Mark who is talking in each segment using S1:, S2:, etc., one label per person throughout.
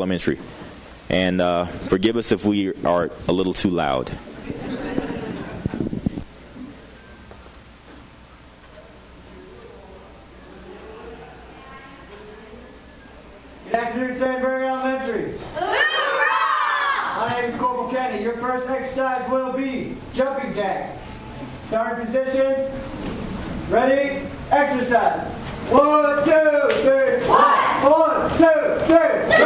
S1: Elementary. And uh, forgive us if we are a little too loud.
S2: Good afternoon, Sandberg Elementary. My name is Corporal Kenny. Your first exercise will be jumping jacks. Starting positions. Ready? Exercise. One, two, three. One, two, three.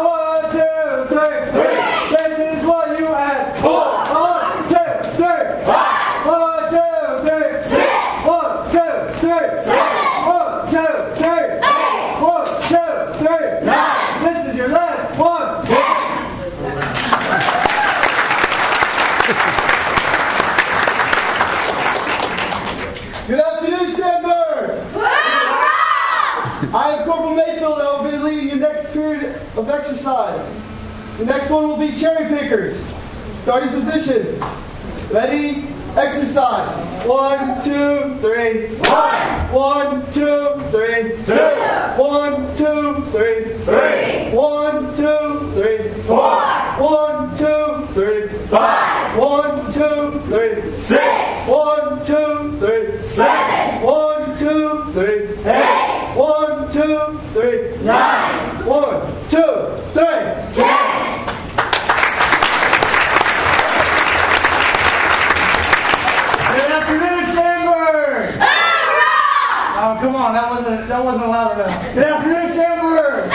S2: One, two, three. This is what you asked for. One, two, three. One, two, three. One, two, three. One, two, three. One, two, three. This is your last one. Good afternoon, Sandberg. I am Corporal Mayfield, and I will be leading your next period of exercise. The next one will be cherry pickers. Starting positions. Ready? Exercise. One, two, three. One, two, three. One, two, three. One, two, three. One, two, three. One, two, three. One, two, three. One, two, three. One, two, three. One, two, three. Good afternoon, Sandberg. Oh, come on, that wasn't that wasn't loud enough. Good afternoon, Sandberg.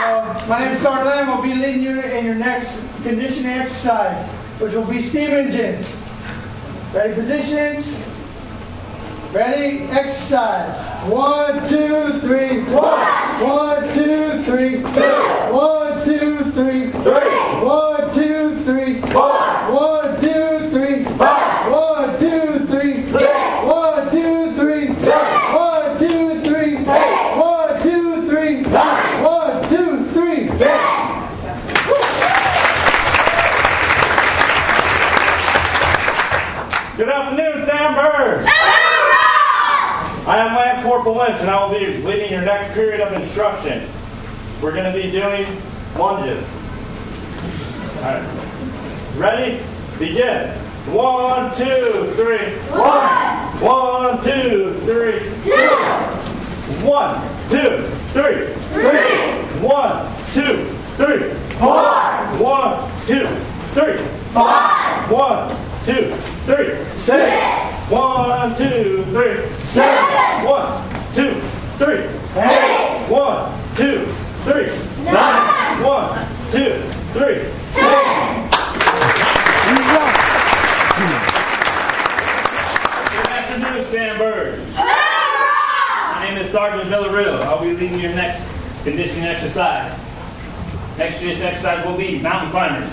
S2: Uh, my name is Sergeant Lamb. I'll be leading you in your next conditioning exercise, which will be steam engines. Ready positions. Ready, exercise. One, two, three, one. One, two, three, two. One, two, three, three. One, two, three, five. One, two, three, five. One, two, three, six. One, two, three, seven. One, two, three, eight. One, two, three, nine. One, two, three, ten.
S3: Good afternoon, Sam Bird. I am Lance Corporal Lynch, and I will be leading your next period of instruction. We're going to be doing lunges. All right. Ready? Begin. One, two, three. One, two, three. One, two, three. One, two, three. One, two, three. One, two, three. One, two, three. One, two, three. One, two, three. One, two, three. Good afternoon, Sandberg. My name is Sergeant Villarreal. I'll be leading your next conditioning exercise. Next conditioning exercise will be mountain climbers.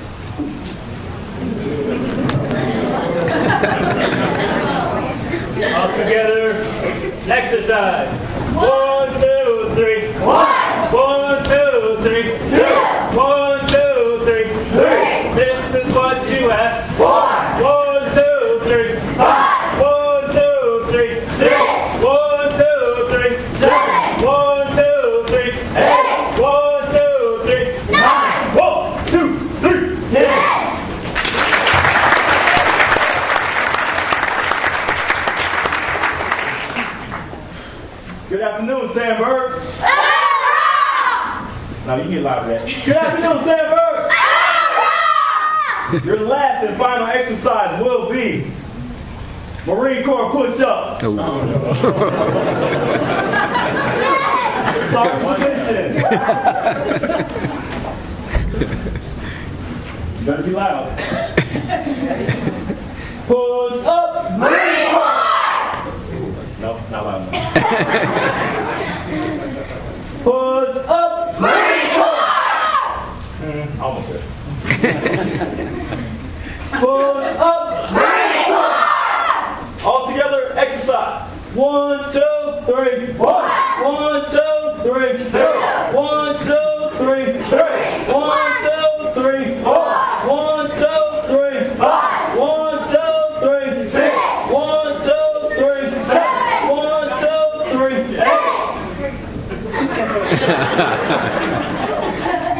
S3: All together. Exercise. One, two, three. One, two, three. One, two, three. This is what you asked. One, two, three. One, two, three. One, two, three. One, two, three. One, two, three. One, two, three. Good afternoon, Sam Bird. No, you get loud for that. Good afternoon, Sam Bird. Your last and final exercise will be Marine Corps push-up. Sorry for listening. Better be loud.